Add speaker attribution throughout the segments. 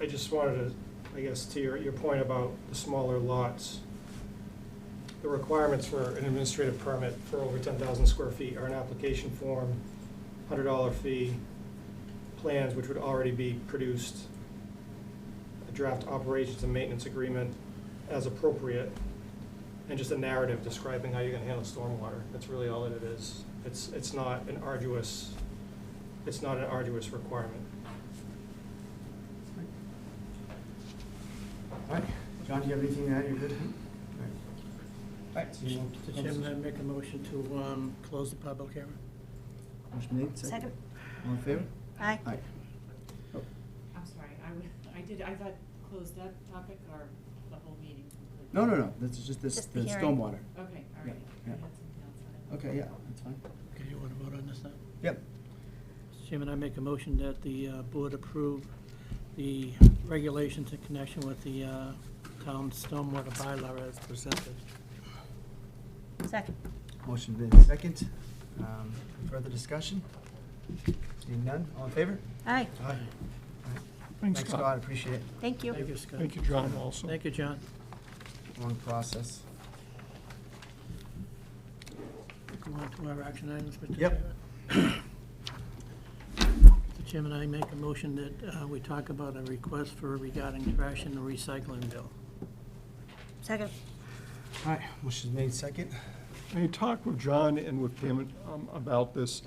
Speaker 1: I just wanted to, I guess, to your, your point about the smaller lots, the requirements for an administrative permit for over ten thousand square feet are an application form, hundred dollar fee, plans which would already be produced, a draft operations and maintenance agreement as appropriate, and just a narrative describing how you're gonna handle stormwater. That's really all that it is. It's, it's not an arduous, it's not an arduous requirement.
Speaker 2: All right, John, do you have anything to add? You're good? All right. so you want-
Speaker 3: Mr. Chairman, I make a motion to um, close the public hearing.
Speaker 2: Motion made, second.
Speaker 4: Second.
Speaker 2: All in favor?
Speaker 4: Aye.
Speaker 2: Aye.
Speaker 5: I'm sorry, I, w- I did, I thought, close that topic or the whole meeting?
Speaker 2: No, no, no, this is just this,
Speaker 4: Just
Speaker 2: the
Speaker 4: the hearing.
Speaker 2: stormwater.
Speaker 5: Okay, all
Speaker 2: Yeah,
Speaker 5: right. I
Speaker 2: yeah.
Speaker 5: had something else.
Speaker 2: Okay, yeah, that's fine.
Speaker 3: Okay, you want to vote on this now?
Speaker 2: Yep.
Speaker 3: Mr. Chairman, I make a motion that the uh, board approve the regulations in connection with the uh, town stormwater bylaw as presented.
Speaker 4: Second.
Speaker 2: Motion made, second. Um, Further discussion? Seeing none, all in favor?
Speaker 4: Aye,
Speaker 2: Aye.
Speaker 6: Thanks,
Speaker 2: Thanks,
Speaker 6: Scott.
Speaker 2: Scott, appreciate it.
Speaker 4: thank you.
Speaker 3: Thank you, Scott.
Speaker 6: Thank you, John, also.
Speaker 3: Thank you, John.
Speaker 2: Long process.
Speaker 3: Go on to our action items, Mr. Chairman.
Speaker 2: Yep.
Speaker 3: Mr. Chairman, I make a motion that uh, we talk about a request for regarding trash and recycling bill.
Speaker 4: Second.
Speaker 2: All right, motion made, second.
Speaker 6: I talked with John and with Pam um, about this.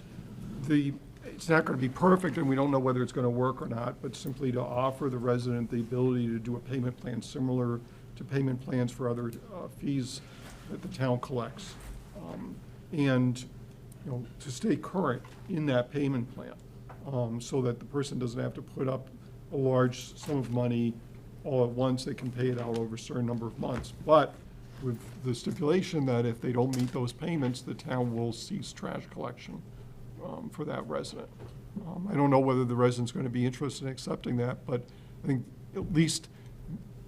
Speaker 6: The, it's not going to be perfect, and we don't know whether it's going to work or not, but simply to offer the resident the ability to do a payment plan similar to payment plans for other uh, fees that the town collects. Um, And, you know, to stay current in that payment plan, um, so that the person doesn't have to put up a large sum of money all at once. They can pay it out over a certain number of months. But with the stipulation that if they don't meet those payments, the town will cease trash collection um, for that resident. Um, I don't know whether the resident's going to be interested in accepting that, but I think at least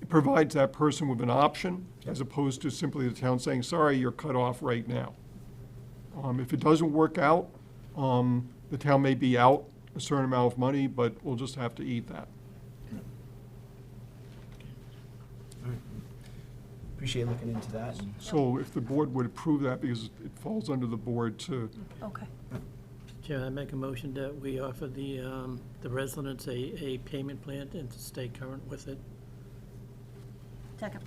Speaker 6: it provides that person with an option as opposed to simply the town saying, sorry, you're cut off right now. Um, If it doesn't work out, um, the town may be out a certain amount of money, but we'll just have to eat that.
Speaker 2: Appreciate looking into that. and-
Speaker 6: So if the board would approve that, because it falls under the board to,
Speaker 4: Okay.
Speaker 3: Chairman, I make a motion that we offer the, um, the residents a, a payment plan and to stay current with it.
Speaker 4: Second.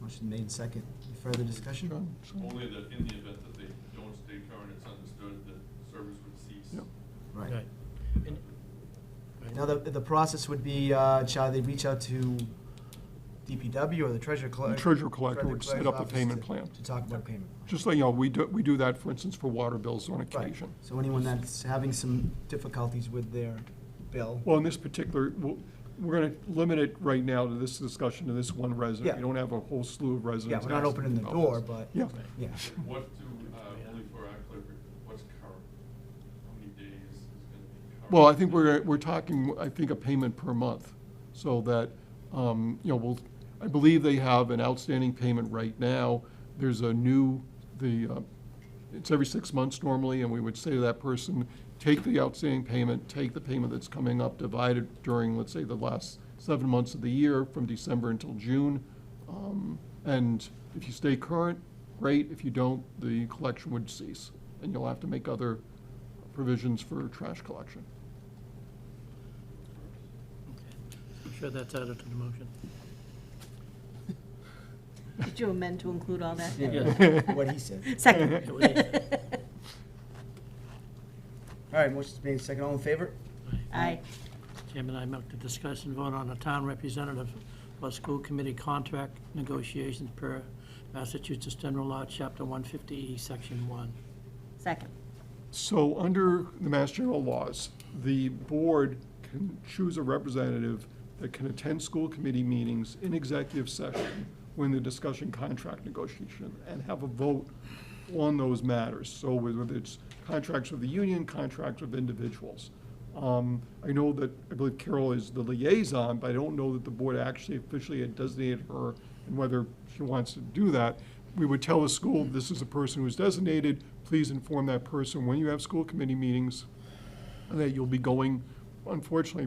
Speaker 2: Motion made, second. Any Further discussion?
Speaker 6: John, so-
Speaker 7: Only that in the event that they don't stay current, it's understood that service would cease.
Speaker 6: Yep.
Speaker 2: Right.
Speaker 3: And-
Speaker 2: Now, the, the process would be, uh, shall they reach out to DPW or the treasurer
Speaker 6: the
Speaker 2: collector?
Speaker 6: treasurer collector would set up a payment plan.
Speaker 2: To talk about payment.
Speaker 6: Just so you know, we do, we do that, for instance, for water bills on
Speaker 2: Right.
Speaker 6: occasion.
Speaker 2: So anyone that's having some difficulties with their bill,
Speaker 6: Well, in this particular, we'll- we're going to limit it right now to this discussion to this one resident.
Speaker 2: Yeah.
Speaker 6: We don't have a whole slew of
Speaker 2: yeah,
Speaker 6: residents.
Speaker 2: we're not
Speaker 6: asking
Speaker 2: opening the
Speaker 6: about
Speaker 2: door,
Speaker 6: this.
Speaker 2: but,
Speaker 6: Yeah,
Speaker 2: yeah,
Speaker 7: What to, uh, only for our clerk, what's current? How many days is gonna be current?
Speaker 6: well, I think we're, we're talking, I think, a payment per month, so that, um, you know, we'll, I believe they have an outstanding payment right now. There's a new, the, uh, it's every six months normally, and we would say to that person, take the outstanding payment, take the payment that's coming up, divide it during, let's say, the last seven months of the year, from December until June. Um, And if you stay current, great, if you don't, the collection would cease, and you'll have to make other provisions for trash collection.
Speaker 3: I'm sure that's added to the motion.
Speaker 4: Did you amend to include all that?
Speaker 2: yeah, what he said.
Speaker 4: Second.
Speaker 2: All right, motion's made, second, all in favor?
Speaker 4: Aye.
Speaker 3: Chairman, I make the discussion vote on a town representative for school committee contract negotiations per Massachusetts General Law, Chapter 150E, Section 1.
Speaker 4: Second.
Speaker 6: So under the Mass General laws, the board can choose a representative that can attend school committee meetings in executive session when they're discussing contract negotiation and have a vote on those matters. So whether it's contracts with the union, contracts with individuals. Um, I know that, I believe Carol is the liaison, but I don't know that the board actually officially had designated her and whether she wants to do that. We would tell the school, this is a person who's designated, please inform that person when you have school committee meetings that you'll be going, unfortunately,